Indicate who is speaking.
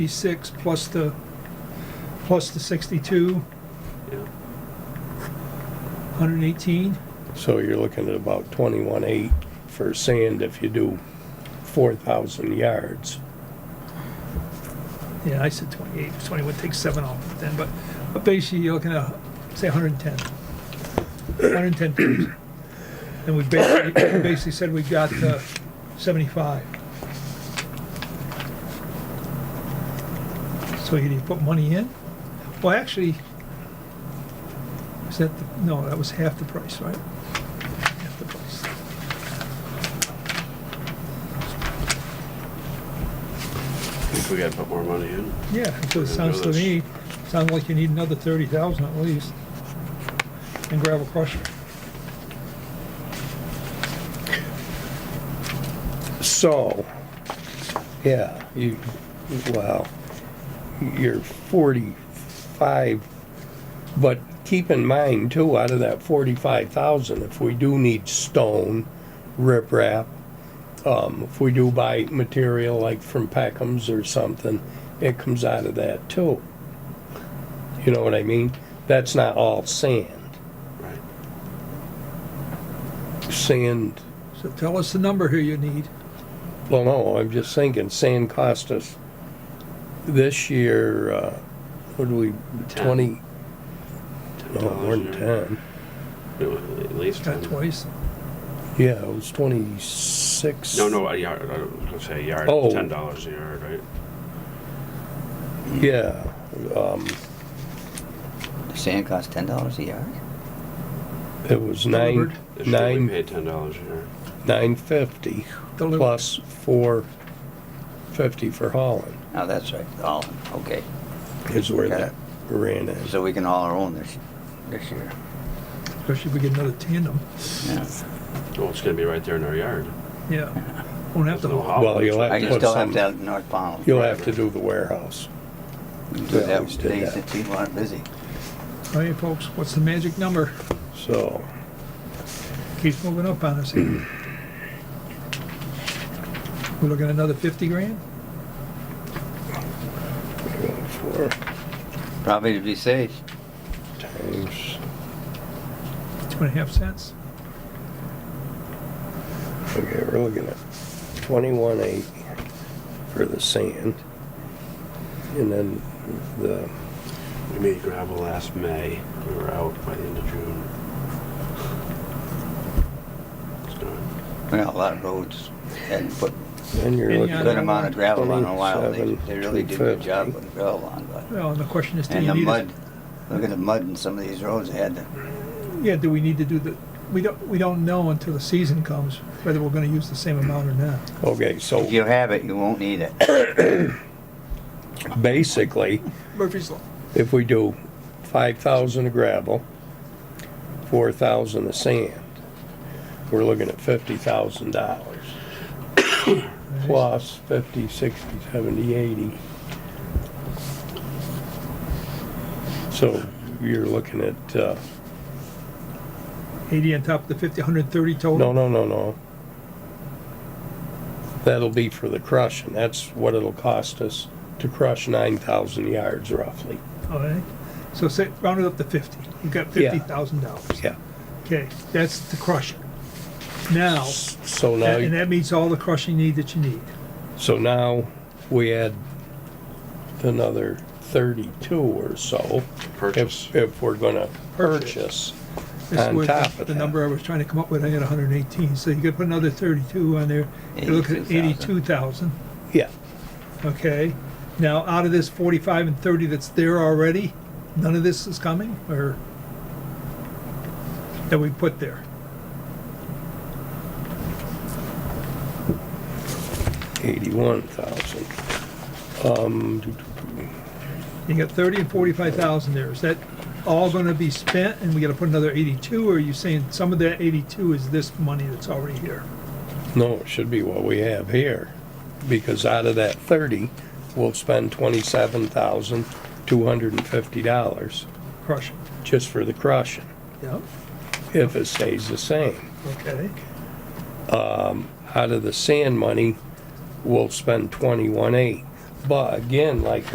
Speaker 1: six plus the, plus the sixty-two,
Speaker 2: Yeah.
Speaker 1: hundred and eighteen.
Speaker 3: So you're looking at about twenty-one eight for sand if you do four thousand yards.
Speaker 1: Yeah, I said twenty-eight, twenty-one, take seven off then, but, but basically you're looking at, say, hundred and ten. Hundred and ten trees. And we basically, basically said we got, uh, seventy-five. So you need to put money in? Well, actually, is that, the- no, that was half the price, right? Half the price.
Speaker 2: If we gotta put more money in.
Speaker 1: Yeah, so it sounds to me, sounds like you need another thirty thousand at least. And gravel crusher.
Speaker 3: So, yeah, you, wow, you're forty-five, but keep in mind too, out of that forty-five thousand, if we do need stone, riprap, um, if we do buy material like from Peckham's or something, it comes out of that too. You know what I mean? That's not all sand.
Speaker 2: Right.
Speaker 3: Sand
Speaker 1: So tell us the number here you need.
Speaker 3: Well, no, I'm just thinking, sand cost us this year, uh, what do we,
Speaker 2: Ten.
Speaker 3: twenty, no,
Speaker 2: $10
Speaker 3: Oh, more than
Speaker 2: or-
Speaker 3: ten.
Speaker 2: No, At least
Speaker 1: Got
Speaker 2: 10.
Speaker 1: twice.
Speaker 3: Yeah, it was twenty-six.
Speaker 2: No, no, a yard, I was gonna say a yard,
Speaker 3: Oh.
Speaker 2: ten dollars a yard, right?
Speaker 3: Yeah, um,
Speaker 4: The Sand costs ten dollars a yard?
Speaker 3: it was nine,
Speaker 1: Delivered.
Speaker 2: It should be
Speaker 3: nine,
Speaker 2: paid ten dollars a yard.
Speaker 3: nine fifty,
Speaker 1: Delivered.
Speaker 3: plus four fifty for hauling,
Speaker 4: Oh, that's right, all, okay.
Speaker 3: is where
Speaker 4: Got
Speaker 3: that
Speaker 4: it.
Speaker 3: ran in.
Speaker 4: So we can haul our own this, this year.
Speaker 1: Especially if we get another tandem.
Speaker 4: Yeah.
Speaker 2: Well, it's gonna be right there in our yard.
Speaker 1: Yeah. Won't have to.
Speaker 2: There's no
Speaker 1: haul.
Speaker 2: hall.
Speaker 3: Well, you'll have
Speaker 4: I
Speaker 3: to
Speaker 4: can
Speaker 3: put
Speaker 4: still have
Speaker 3: some,
Speaker 4: to have North Pownell.
Speaker 3: you'll have to do the warehouse.
Speaker 4: Do
Speaker 3: Yeah,
Speaker 4: that,
Speaker 3: we did
Speaker 4: things
Speaker 3: that.
Speaker 4: that people aren't busy.
Speaker 1: All right, folks, what's the magic number?
Speaker 3: So,
Speaker 1: Keeps moving up on us here. We're looking at another fifty grand?
Speaker 3: four
Speaker 4: Probably to be safe.
Speaker 3: times,
Speaker 1: Two and a half cents?
Speaker 3: okay, we're looking at twenty-one eight for the sand. And then the,
Speaker 2: We made gravel last May, we were out by the end of June. It's gone.
Speaker 4: We got a lot of roads hadn't put
Speaker 3: then you're
Speaker 1: Any
Speaker 3: looking.
Speaker 4: a
Speaker 1: other-
Speaker 3: at
Speaker 4: good amount of gravel on in a while. They,
Speaker 3: 27,
Speaker 4: they really did a good job
Speaker 3: 250.
Speaker 4: putting gravel on, but.
Speaker 1: Well, and the question is, do
Speaker 4: And
Speaker 1: you
Speaker 4: the
Speaker 1: need,
Speaker 4: mud,
Speaker 1: us-
Speaker 4: look at the mud in some of these roads, they had to,
Speaker 1: yeah, do we need to do the, we don't, we don't know until the season comes whether we're gonna use the same amount or not.
Speaker 3: Okay, so
Speaker 4: if you have it, you won't need it.
Speaker 3: basically,
Speaker 1: Murphy's Law.
Speaker 3: if we do five thousand of gravel, four thousand of sand, we're looking at fifty thousand dollars. Plus fifty, sixty, seventy, eighty. So you're looking at, uh,
Speaker 1: Eighty on top of the fifty, hundred and thirty total?
Speaker 3: No, no, no, no. That'll be for the crushing. That's what it'll cost us to crush nine thousand yards roughly.
Speaker 1: All right, so say, round it up to fifty, you've got
Speaker 3: Yeah.
Speaker 1: fifty thousand dollars.
Speaker 3: Yeah.
Speaker 1: Okay, that's the crusher. Now,
Speaker 3: So
Speaker 1: and
Speaker 3: now,
Speaker 1: that means all the crushing need that you need.
Speaker 3: so now we add another thirty-two or so.
Speaker 2: Purchase.
Speaker 3: If, if we're gonna
Speaker 1: Purchase.
Speaker 3: purchase.
Speaker 1: This
Speaker 3: On
Speaker 1: was
Speaker 3: top of
Speaker 1: The
Speaker 3: that.
Speaker 1: number I was trying to come up with, I had hundred and eighteen, so you could put another thirty-two on there, you're looking at eighty-two thousand,
Speaker 3: Yeah,
Speaker 1: okay? Now, out of this forty-five and thirty that's there already, none of this is coming, or? That we put there,
Speaker 3: eighty-one thousand. Um, do- do-
Speaker 1: you got thirty and forty-five thousand there, is that all gonna be spent, and we gotta put another eighty-two, or are you saying some of that eighty-two is this money that's already here?
Speaker 3: do- no, it should be what we have here, because out of that thirty, we'll spend twenty-seven thousand, two hundred and fifty dollars.
Speaker 1: Crushing,
Speaker 3: just for the crushing,
Speaker 1: yeah,
Speaker 3: if it stays the same.
Speaker 1: okay,
Speaker 3: Out of the sand money, we'll spend twenty-one eight. But again, like